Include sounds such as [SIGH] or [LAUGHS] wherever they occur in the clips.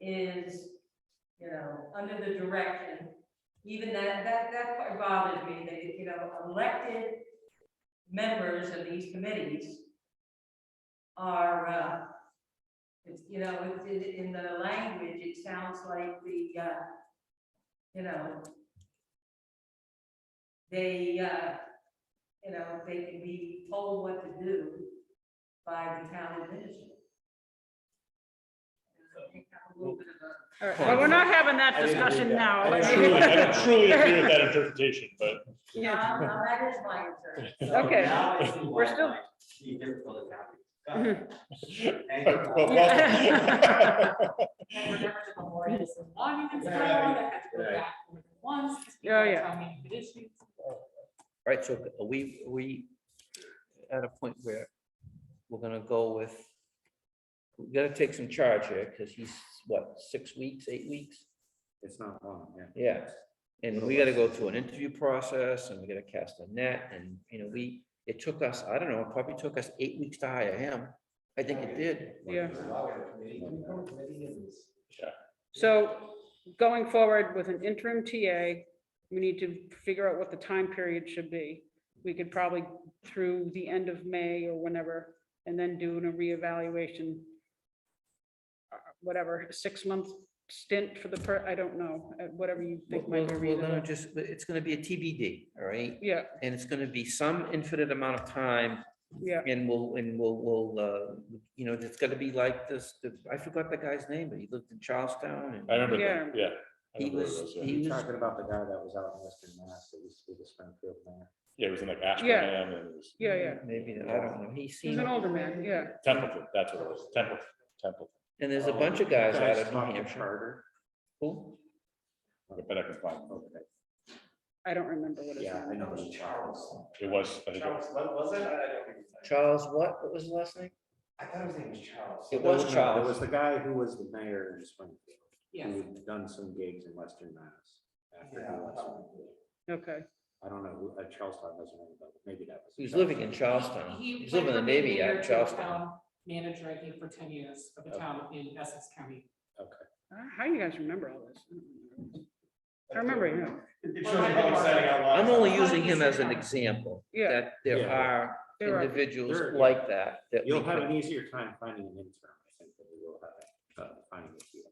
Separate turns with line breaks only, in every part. is, you know, under the direction, even that, that, that part bothers me, that, you know, elected members of these committees are, uh, it's, you know, it's in, in the language, it sounds like the, uh, you know, they, uh, you know, they can be told what to do by the town administrator. I think that's a little bit of a-
All right, well, we're not having that
I didn't read
discussion
that.
now.
I
Let's-
didn't
Truly, I don't truly agree with that interpretation, but
No,
Yeah.
no, Um, that is my concern.
Okay,
Now I see why
we're still-
my chief difficult is [LAUGHS] happy. Got it. Thank you.
but welcome.
[LAUGHS]
And remember the memorial is a long and strong, that had to go back more than once. because people
Yeah,
are
yeah.
telling me it issues.
Right, so are we, are we at a point where we're gonna go with, we gotta take some charge here, because he's, what, six weeks, eight weeks?
It's not long, yeah.
Yeah, and we gotta go through an interview process, and we gotta cast a net, and, you know, we, it took us, I don't know, it probably took us eight weeks to hire him. I think it did.
[LAUGHS] Yeah.
Yeah.
So going forward with an interim TA, we need to figure out what the time period should be. We could probably through the end of May or whenever, and then do a reevaluation. uh, Whatever, six-month stint for the, per I don't know, uh, whatever you
We're
think might be
we're- we're gonna
reasonable.
just, it's gonna be a TBD, all right?
Yeah,
And it's gonna be some infinite amount of time
yeah,
And we'll, and we'll, we'll, uh, you know, it's gonna be like this, the- I forgot the guy's name, but he lived in Charlestown
I
and
remember that, yeah. I
he
remember
was,
it was, yeah.
he was,
Talking about the guy that was out in Western Mass, that used to be the Springfield mayor.
Yeah, it was in like Ashburnham and it was
yeah, yeah.
maybe, I don't know, he
He's
seemed,
an older man, yeah.
Templeton, that's what it was, Templeton, Templeton.
and there's a bunch of guys out of
Talking
New Hampshire.
Charter.
Who?
I bet I can find it.
Okay.
I don't remember what his
Yeah, I
name
know
was.
it's Charles.
It was, I think, it was-
what was it? I don't think it's-
Charles what, what was his last name?
I thought his name was Charles.
It was
No, no,
Charles.
It was the guy who was the mayor in Springfield,
Mm.
Yes.
who had done some gigs in Western Mass. after he left Springfield.
Okay,
I don't know, who- uh, Charlestown doesn't ring a bell, maybe that was.
He was living in Charlestown, he was living in the Navy out
mayor
of
to
Charlestown.
town Manager, I think, for ten years of the
Oh.
town in Essex County.
Okay.
Uh, how you guys remember all this? I remember, yeah,
I'm only
Well,
using him as an
he's-
example,
yeah.
that there
Yeah.
are
there are-
individuals
There are-
like that, that we
You'll have
could,
an easier time finding an intern, I think, than you will have uh, finding a few.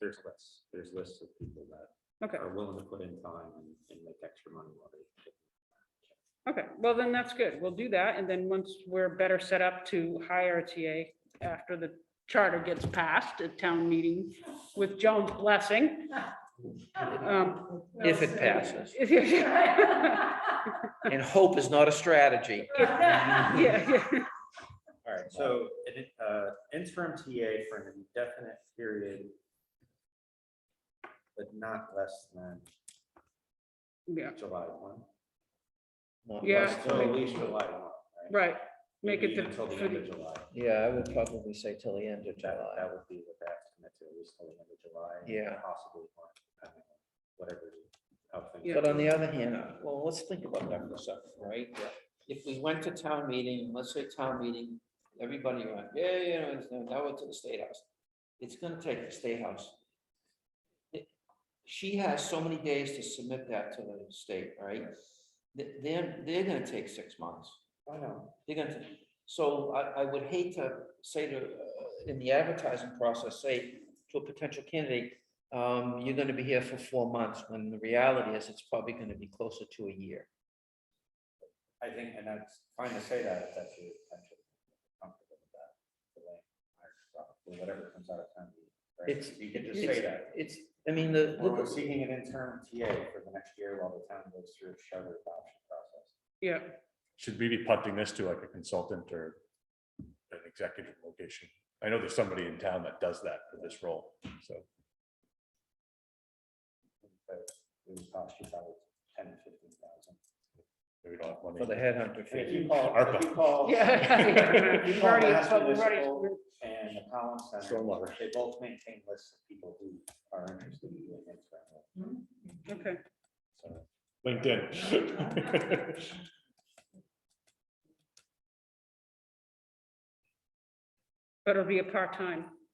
There's lists, there's lists of people that
Okay,
are willing to put in time and- and make extra money while they.
okay, well, then that's good. We'll do that, and then once we're better set up to hire a TA after the charter gets passed at town meeting with Joan's blessing. um,
if it passes.
[LAUGHS] Yeah,
And hope is not a strategy.
[LAUGHS]
yeah,
All right, so an in- uh, interim TA for an indefinite period, but not less than
yeah,
July one.
Not
Yeah.
less
So at
than-
least July one.
right. Make
Maybe
it the-
Until the
for
end of
the-
July.
Yeah, I would probably say till the end of
That,
July.
that would be what that commit to, at least till the end of July. and
Yeah.
Possibly more, depending on whatever, how things.
Yeah.
But on the other hand, well, let's think about that for a second, right? If we went to town meeting, let's say town meeting, everybody went, yeah, yeah, yeah, it's- now we're to the state house. It's gonna take the state house. It- She has so many days to submit that to the state, right? Th- They're, they're gonna take six months.
I know.
They're gonna, t- so I, I would hate to say to, uh, in the advertising process, say to a potential candidate, um, you're gonna be here for four months, when the reality is it's probably gonna be closer to a year.
I think, and that's fine to say that, if that's your intention. comfortable with that, delay, hire stuff, or Whatever comes out of town. meeting, right?
It's,
You can just say
it's-
that.
It's, I mean, the,
Or We're
look,
seeking an interim TA for the next year while the town goes through its charter adoption process.
Yeah,
should we be punting this to like a consultant or an executive location? I know there's somebody in town that does that for this role, so.
But It would cost you probably ten, fifteen thousand.
maybe we don't have money.
for the headhunter
And if
fee.
you call, if you
[LAUGHS]
call. [LAUGHS]
yeah.
if you
We've
call
already-
Mass
but we've already-
Municipal, and the Collins Center,
Stormwater.
they both maintain lists of people who are interested in doing it.
Okay,
[LAUGHS] So, LinkedIn. [LAUGHS]
but it'll be a part-time